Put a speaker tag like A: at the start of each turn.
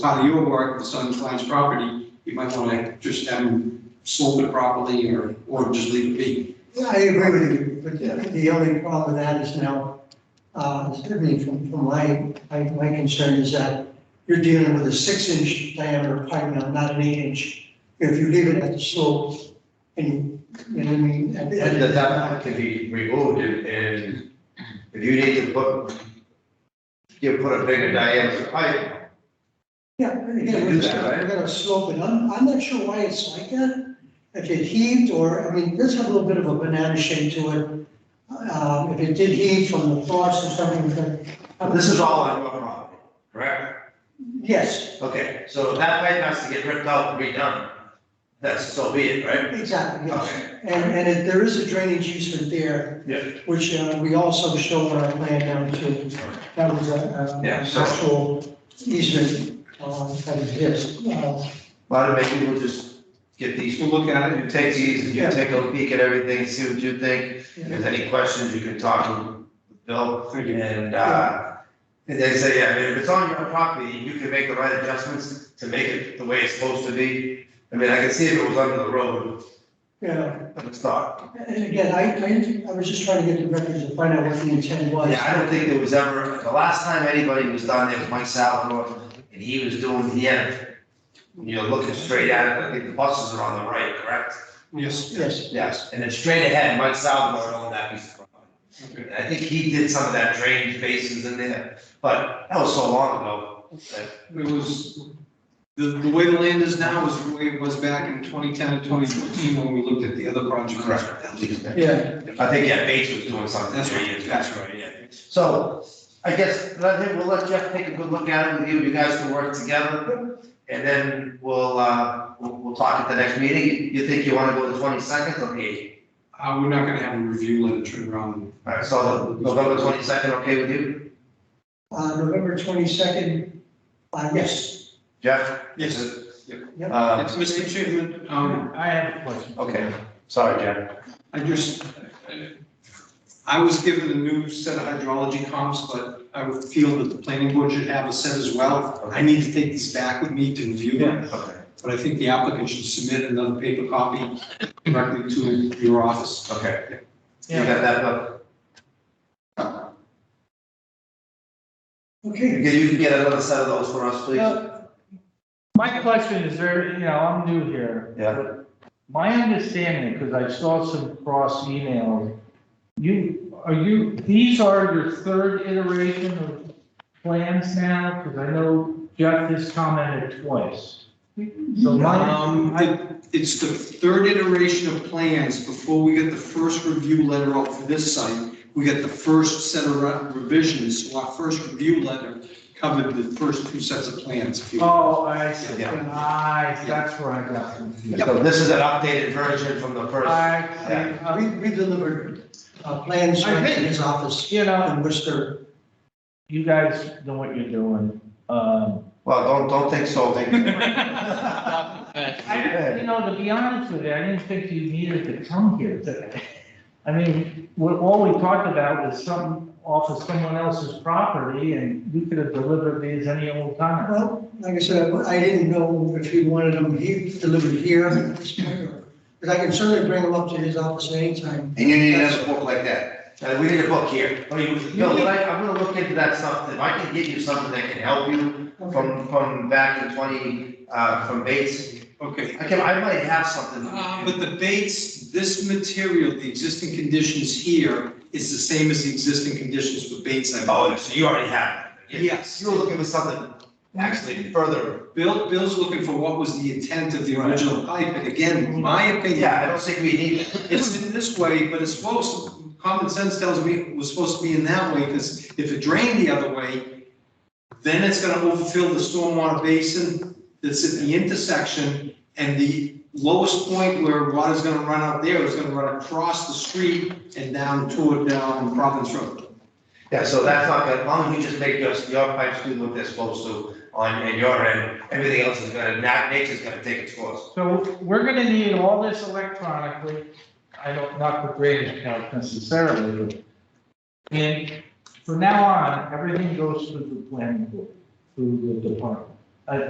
A: part of your work, the Sun Client's property, you might want to just have them slope it properly or, or just leave it be.
B: Yeah, I agree with you,
A: Yeah.
B: but the only problem with that is now, uh, certainly from, from my, my, my concern is that you're dealing with a six inch diameter pipe now, not an eight inch. If you leave it at the slope and, you know what I mean? and-
C: And that that can be removed and, and if you need to put, you put a bigger diameter pipe,
B: Yeah, we're
C: You
B: gonna,
C: can
B: we're
C: do that, right?
B: gonna slope it, I'm, I'm not sure why it's like that. If it heaved or, I mean, this has a little bit of a banana shape to it. Um, if it did heave from the frost or something, but. uh,
C: this is all on your property, correct?
B: Yes,
C: Okay, so that pipe has to get ripped out and redone. That's so be it, right?
B: exactly, yes.
C: Okay,
B: And, and it- there is a drainage easement there.
C: Yeah.
B: Which uh, we also showed on our plan down to, that was a, a
C: Yeah, so-
B: actual easement, uh, that exists. Uh,
C: well, maybe we'll just get these,
A: We'll look at it.
C: you take these, you
B: Yeah.
C: take a peek at everything, see what you think. If
B: yeah.
C: there's any questions, you can talk to Bill.
A: Thank you.
C: And, uh, and they say, yeah, if it's on your property, you can make the right adjustments to make it the way it's supposed to be. I mean, I can see if it was under the road,
B: Yeah,
C: but it's not.
B: and again, I, I, I was just trying to get the records to find out what the intent was.
C: Yeah, I don't think there was ever, the last time anybody was down there was Mike Salvador, and he was doing the end. You're looking straight at it, I think the buses are on the right, correct?
A: Yes.
B: Yes,
C: Yes. And then straight ahead, Mike Salvador owned that piece of property.
A: Okay.
C: And I think he did some of that drainage basins in there, but that was so long ago. that-
A: It was, the, the way the land is now is the way it was back in 2010 and 2014 when we looked at the other project.
B: yeah,
C: I think, yeah, Bates was doing something
A: That's
C: three
A: right,
C: years ago.
A: that's right, yeah.
C: So I guess, let him, we'll let Jeff take a good look at it with you, you guys can work together. And then we'll, uh, we'll, we'll talk at the next meeting. You think you wanna go the twenty-second or the eighth?
A: Uh, we're not going to have a review, let it turn around.
C: All right, so November twenty-second, okay with you?
B: uh, November twenty-second, uh, yes,
C: Jeff?
A: Yes.
B: Yep.
C: Uh,
A: Mr. Chairman, um,
D: I have a question.
C: okay, sorry, Jeff.
A: I just, I was given a new set of hydrology comps, but I would feel that the planning board should have a set as well. I need to take these back with me to review them,
C: Okay,
A: but I think the applicant should submit another paper copy directly to your office.
C: okay. You got that, uh, Bill?
B: okay.
C: Okay, you can get another set of those for us, please?
D: Yeah. My question is there, you know, I'm new here.
C: Yeah.
D: My understanding, because I saw some cross emails, you, are you, these are your third iteration of plans now? Because I know Jeff has commented twice. So
A: Um,
D: my,
A: I- It's the third iteration of plans. Before we get the first review letter out for this site, we get the first set of re- revisions. So our first review letter covered the first two sets of plans. if you will.
D: oh, I see,
C: Yeah.
D: I, that's where I got confused.
C: So this is an updated version from the first.
D: I,
B: We, we delivered, uh, plans
D: I
B: right to
D: think-
B: his office
D: you know,
B: in Worcester.
D: you guys know what you're doing. Um,
C: Well, don't, don't think so, thank you.
D: I, you know, to be honest with you, I didn't think you needed to come here today. I mean, what, all we talked about was something off of someone else's property and you could have delivered these any old time.
B: Well, like I said, I I didn't know if he wanted them he delivered here at this point, or- but I can certainly bring them up to his office at any time.
C: And you need another book like that. Uh, we need a book here. I mean, Bill, but I, I'm gonna look into that stuff, if I can get you something that can help you
B: Okay.
C: from, from back in twenty, uh, from Bates,
A: Okay.
C: I can, I might have something.
A: Uh, But the Bates, this material, the existing conditions here, is the same as the existing conditions for Bates, I believe.
C: Oh, so you already have it.
A: Yes.
C: You were looking for something actually further,
A: Bill, Bill's looking for what was the intent of the original pipe, and again, my
C: yeah, I
A: opinion,
C: don't think we need it.
A: it's in this way, but it's supposed, common sense tells me it was supposed to be in that way, because if it drained the other way, then it's gonna overfill the stormwater basin that's at the intersection, and the lowest point where water's gonna run out there is gonna run across the street and down toward, down Province Road.
C: Yeah, so that's not, gonna- as long as you just make your, your pipes do what they're supposed to on, in your end, everything else is gonna, nat- nature's gonna take its course.
D: So we're gonna need all this electronically, I don't, not the greatest help necessarily, but. And from now on, everything goes through the planning board, through the department.